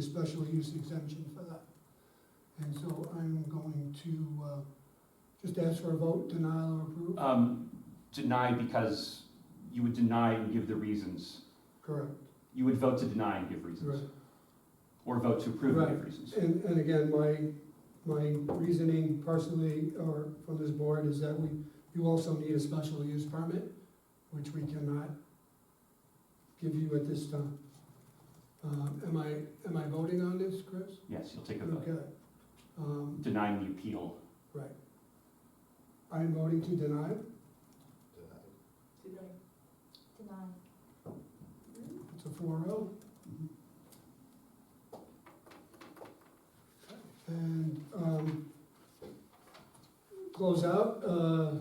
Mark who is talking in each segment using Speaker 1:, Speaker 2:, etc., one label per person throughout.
Speaker 1: special use exemption for that. And so I'm going to, uh, just ask for a vote, denial or approve,
Speaker 2: Um, deny because you would deny and give the reasons.
Speaker 1: correct,
Speaker 2: You would vote to deny and give
Speaker 1: right.
Speaker 2: reasons. Or vote to approve and give reasons.
Speaker 1: And, and again, my, my reasoning personally, or from this board, is that we, you also need a special use permit, which we cannot give you at this time. Um, am I, am I voting on this, Chris?
Speaker 2: Yes, you'll take a vote.
Speaker 1: Okay. Um,
Speaker 2: Denying the appeal.
Speaker 1: I am voting to deny.
Speaker 3: Deny.
Speaker 1: It's a four oh. And, um, close out, uh,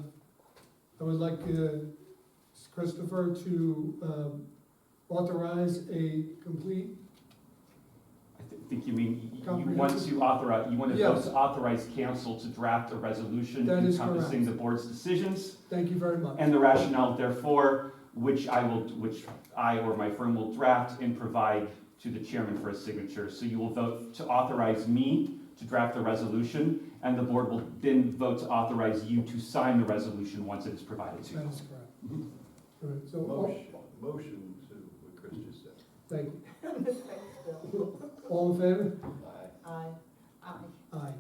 Speaker 1: I would like, uh, Christopher to, um, authorize a complete,
Speaker 2: I thi- think you mean, y- y- you want
Speaker 1: Comprehensive.
Speaker 2: to authorize, you want to vote
Speaker 1: Yes.
Speaker 2: to authorize council to draft a resolution
Speaker 1: That is
Speaker 2: encompassing the board's decisions
Speaker 1: thank you very much.
Speaker 2: and the rationale therefore, which I will, which I or my firm will draft and provide to the chairman for his signature. So you will vote to authorize me to draft the resolution, and the board will then vote to authorize you to sign the resolution once it is provided to
Speaker 1: That
Speaker 2: you.
Speaker 1: is correct. All right, so, oh. all-
Speaker 4: Motion, motion to what Chris just said.
Speaker 1: thank you. All in favor?
Speaker 5: Uh,
Speaker 3: Aye. Aye.
Speaker 1: Aye.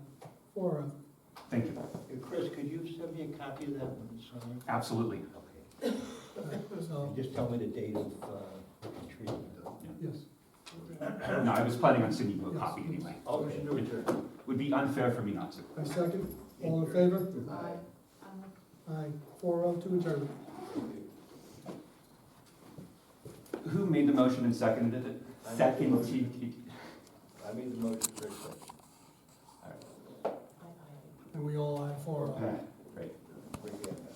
Speaker 1: Four oh.
Speaker 2: Thank you.
Speaker 5: Hey, Chris, could you send me a copy of that one, sorry?
Speaker 2: Absolutely.
Speaker 5: Okay.
Speaker 1: All right, oh. So,
Speaker 5: Just tell me the date of, uh, retreat.
Speaker 1: yes.
Speaker 2: No, I was planning on sending you a
Speaker 1: Yes.
Speaker 2: copy anyway.
Speaker 4: Motion to adjourn.
Speaker 2: Would be unfair for me not to.
Speaker 1: I second, all in favor?
Speaker 4: Aye.
Speaker 3: Aye.
Speaker 1: Aye. Four oh to adjourn.
Speaker 2: Who made the motion and seconded it?
Speaker 4: I made the
Speaker 2: Seconded.
Speaker 4: motion. I made the motion, Chris seconded.
Speaker 3: Aye, aye.
Speaker 1: And we all aye four oh.
Speaker 2: All right.